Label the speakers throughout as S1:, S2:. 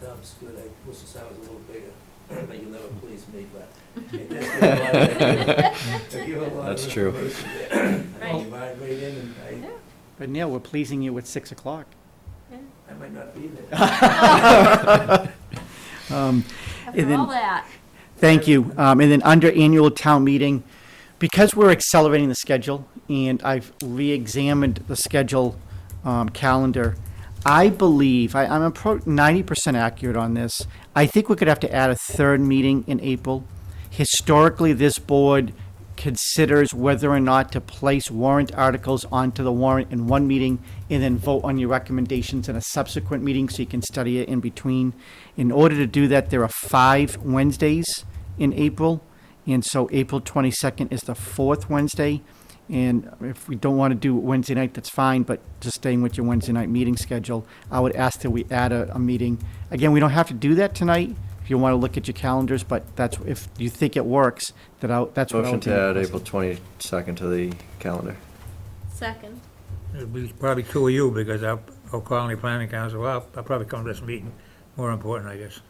S1: Tom's good, I wish the sign was a little bigger, but you'll never please me, but. it does give a lot of- it give a lot of
S2: That's true.
S1: information there. I
S3: Right.
S1: divide right in and
S3: Yeah,
S4: But Neil, we're pleasing you at 6 o'clock.
S3: yeah.
S1: I, I might not be there.
S4: Um, And
S3: After
S4: then-
S3: all that,
S4: Thank you. Um, And then under annual town meeting, because we're accelerating the schedule, and I've re-examined the schedule um, calendar, I believe, I- I'm appro- 90% accurate on this, I think we're going to have to add a third meeting in April. Historically, this board considers whether or not to place warrant articles onto the warrant in one meeting and then vote on your recommendations in a subsequent meeting so you can study it in between. In order to do that, there are five Wednesdays in April. And so April 22nd is the fourth Wednesday. And if we don't want to do it Wednesday night, that's fine, but just staying with your Wednesday night meeting schedule, I would ask that we add a, a meeting. Again, we don't have to do that tonight if you want to look at your calendars, but that's, if you think it works, that I, that's what I
S2: Motion
S4: would
S2: to
S4: do.
S2: add April 22nd to the calendar.
S3: second.
S5: It'll be probably two of you, because I'll, I'll call any planning council up, I'll probably come to this meeting, more important, I guess.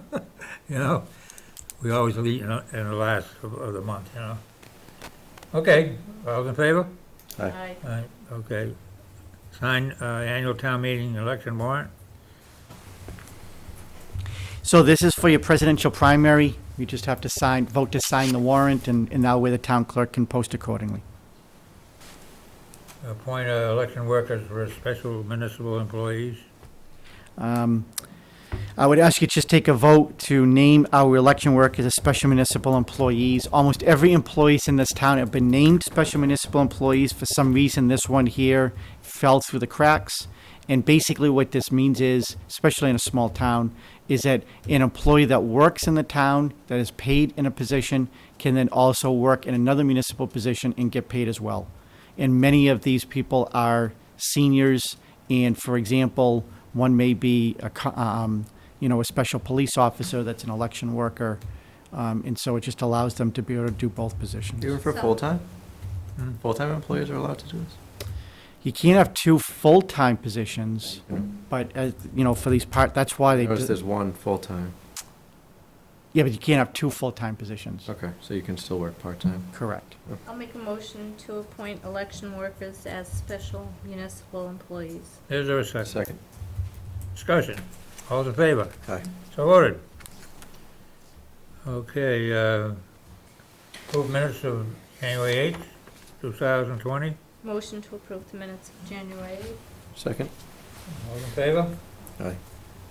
S5: You know, we always meet in, the- in the last of, of the month, you know? Okay, all in favor?
S2: Aye.
S3: Aye.
S5: Aye, okay. Sign, uh, annual town meeting election warrant,
S4: So this is for your presidential primary. You just have to sign, vote to sign the warrant, and, and that way the town clerk can post accordingly.
S5: appoint uh, election workers for special municipal employees.
S4: Um, I would ask you to just take a vote to name our election workers as special municipal employees. Almost every employees in this town have been named special municipal employees. For some reason, this one here fell through the cracks. And basically what this means is, especially in a small town, is that an employee that works in the town, that is paid in a position, can then also work in another municipal position and get paid as well. And many of these people are seniors. And for example, one may be a, co- um, you know, a special police officer that's an election worker. Um, and so it just allows them to be able to do both positions.
S2: Even for
S3: So-
S2: full-time?
S5: Hmm.
S2: Full-time employees are allowed to do this?
S4: You can't have two full-time positions, but, uh, you know, for these part, that's why they,
S2: Notice
S4: do-
S2: there's one full-time.
S4: yeah, but you can't have two full-time positions.
S2: Okay, so you can still work part-time.
S4: Correct.
S3: I'll make a motion to appoint election workers as special municipal employees.
S5: Is there a second?
S2: Second.
S5: Discussion, all in favor?
S2: Aye.
S5: So ordered. Okay, uh, approve minutes of January eighth, two thousand twenty.
S3: Motion to approve the minutes of January.
S2: Second?
S5: All in favor?
S2: Aye.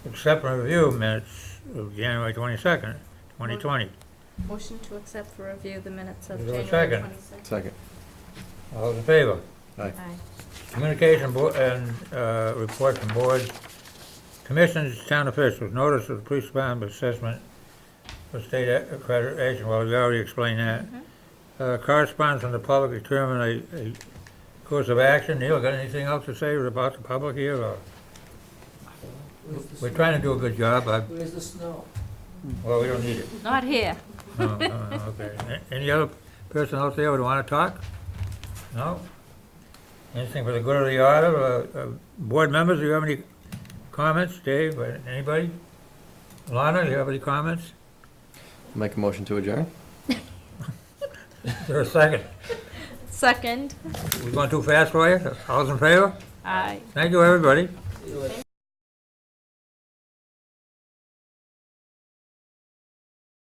S5: Accept and review minutes of January twenty-second, twenty twenty.
S3: Motion to accept for review the minutes of
S5: Is there a
S3: January
S5: second?
S3: 22nd.
S2: Second.
S5: All in favor?
S3: Aye.
S5: Communication bo- and, uh, report from boards, commissions, town officials, notice of the police department assessment for state accreditation, well, we already explained that.
S3: Mhm.
S5: Uh, correspondence from the public determine a, a course of action. Neil, got anything else to say about the public here, or?
S1: Where's the
S5: We're
S1: snow?
S5: trying to do a good job, I,
S1: Where's the snow?
S5: well, we don't need it.
S3: Not here.
S5: No, no, no, Oh, okay. A- Any other person out there would wanna talk? No? Anything for the good of the order, uh, uh, board members, do you have any comments, Dave, or anybody? Lana, do you have any comments?
S2: Make a motion to adjourn?
S5: Is there a second?
S3: Second.
S5: We going too fast for you? All's in favor?
S3: Aye.
S5: Thank you, everybody.
S1: See you later.